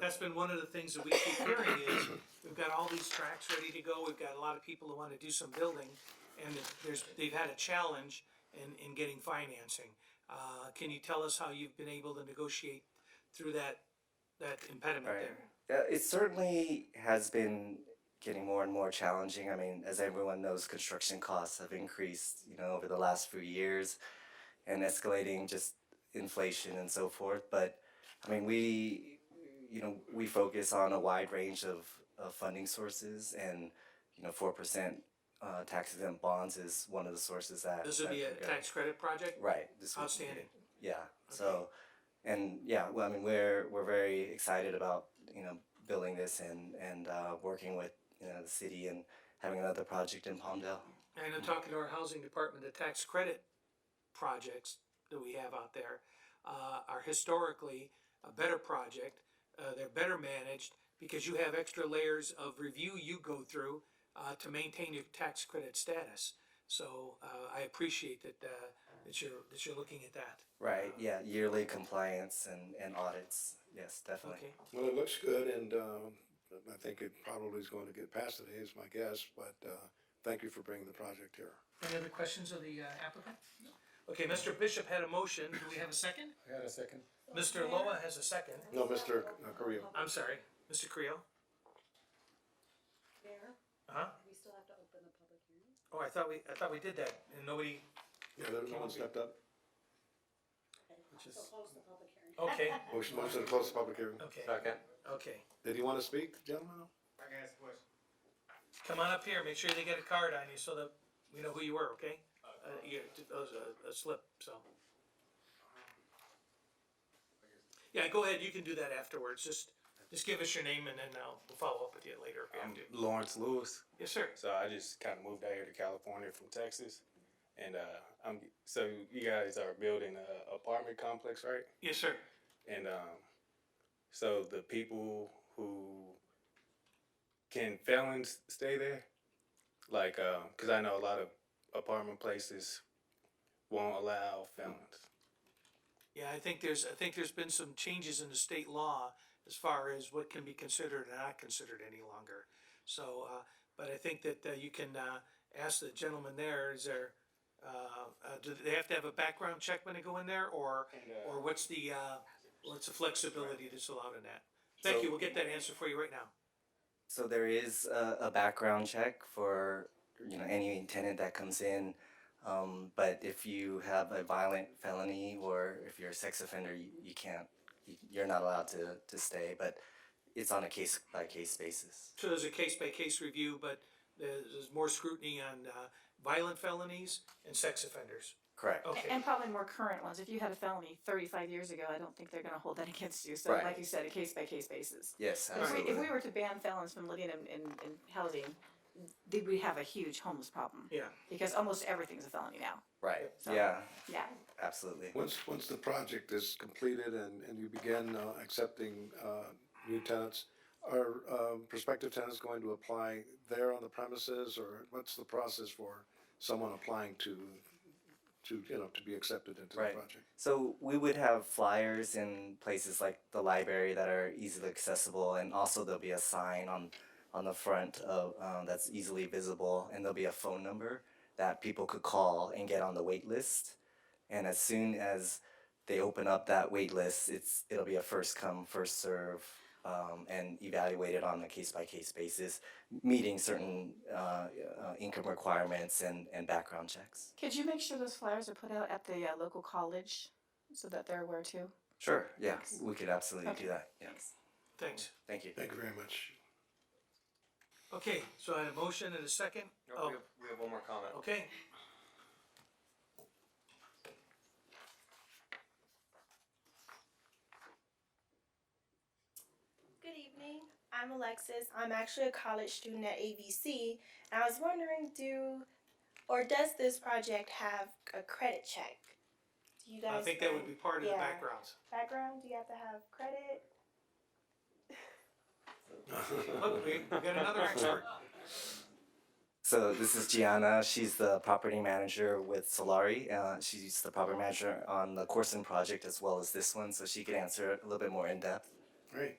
that's been one of the things that we keep hearing is, we've got all these tracks ready to go, we've got a lot of people who wanna do some building, and there's, they've had a challenge in, in getting financing. Uh, can you tell us how you've been able to negotiate through that, that impediment Right. there? Uh, it certainly has been getting more and more challenging. I mean, as everyone knows, construction costs have increased, you know, over the last few years and escalating just inflation and so forth. But I mean, we, you know, we focus on a wide range of, of funding sources and, you know, 4% uh, tax exempt bonds is one of the sources that. This would that be a we go- tax credit project? Right. This would be- Outstanding. Yeah. So, and yeah, well, I mean, we're we're very excited about you know building this and and uh, working with you know the city and having another project in Palmdale. And I'm talking to our housing department, the tax credit projects that we have out there uh, are historically a better project. Uh, they're better managed because you have extra layers of review you go through uh, to maintain your tax credit status. So uh, I appreciate that, uh, that you're, that you're looking at that. Right. Yeah. Yearly compliance and and audits. Yes, definitely. Okay, Well, it looks good and, um, I think it probably is going to get passed today is my guess, but, uh, thank you for bringing the project here. any other questions of the uh, applicant? Okay, Mr. Bishop had a motion, do we have a second? I had a second. Mr. Loa has a second, No, Mr. Korea. I'm sorry, Mr. Creel, Mayor, huh? we still have to open the public hearing? Oh, I thought we, I thought we did that, and nobody, Yeah, that one stepped up. Okay, so close the public hearing. okay, Motion, motion to close the public hearing. okay, Second. okay. Did you want to speak, gentlemen? I can ask a question. Come on up here, make sure they get a card on you so that we know who you were, okay? Uh, you, that was a, a slip, so. Yeah, go ahead, you can do that afterwards, just, just give us your name and then I'll, we'll follow up with you later if we have I'm to. Lawrence Lewis. Yes, sir. So I just kind of moved out here to California from Texas, and uh, I'm so you guys are building a apartment complex, right? Yes, sir. And um, so the people who can felons stay there, like because I know a lot of apartment places won't allow felons. Yeah, I think there's, I think there's been some changes in the state law as far as what can be considered and not considered any longer. So, uh, but I think that, uh, you can, uh, ask the gentleman there, is there, uh, uh, do they have to have a background check when they go in there or, or what's the, uh, what's the flexibility that's allowed in that? Thank you, we'll get that answer for you right now. So there is a, a background check for you know any tenant that comes in. Um, but if you have a violent felony or if you're a sex offender, you, you can't, you- you're not allowed to, to stay. But it's on a case by case basis. So there's a case by case review, but there's, there's more scrutiny on, uh, violent felonies and sex offenders. Correct. Oh, Okay. And probably more current ones. If you had a felony thirty-five years ago, I don't think they're gonna hold that against you. So Right. like you said, a case-by-case basis. Yes, If we, absolutely. if we were to ban felons from living in, in, in housing, then we'd have a huge homeless problem. Yeah. Because almost everything's a felony now. Right. So- Yeah, Yeah. absolutely. Once, once the project is completed and, and you begin uh, accepting uh, new tenants, are um, prospective tenants going to apply there on the premises or what's the process for someone applying to, to, you know, to be accepted into the Right. project? So we would have flyers in places like the library that are easily accessible, and also there'll be a sign on on the front of um, that's easily visible, and there'll be a phone number that people could call and get on the wait list. And as soon as they open up that wait list, it's it'll be a first come first serve. Um, and evaluated on a case by case basis, meeting certain uh, uh, income requirements and, and background checks. Could you make sure those flyers are put out at the uh, local college so that they're aware too? Sure, yeah, we could absolutely Okay. do that. Yeah. Thanks. Thanks. Thank you. Thank you very much. Okay, so I had a motion and a second. Oh, We have- we have one more comment. okay. Good evening. I'm Alexis. I'm actually a college student at ABC, and I was wondering, do or does this project have a credit check? Do you I guys? think that would be part of the Yeah. background. Background? Do you have to have credit? Look, we, we got another expert. So this is Gianna. She's the property manager with Solari. Uh, she's the property manager on the Corson project as well as this one, so she could answer it a little bit more in depth. Great.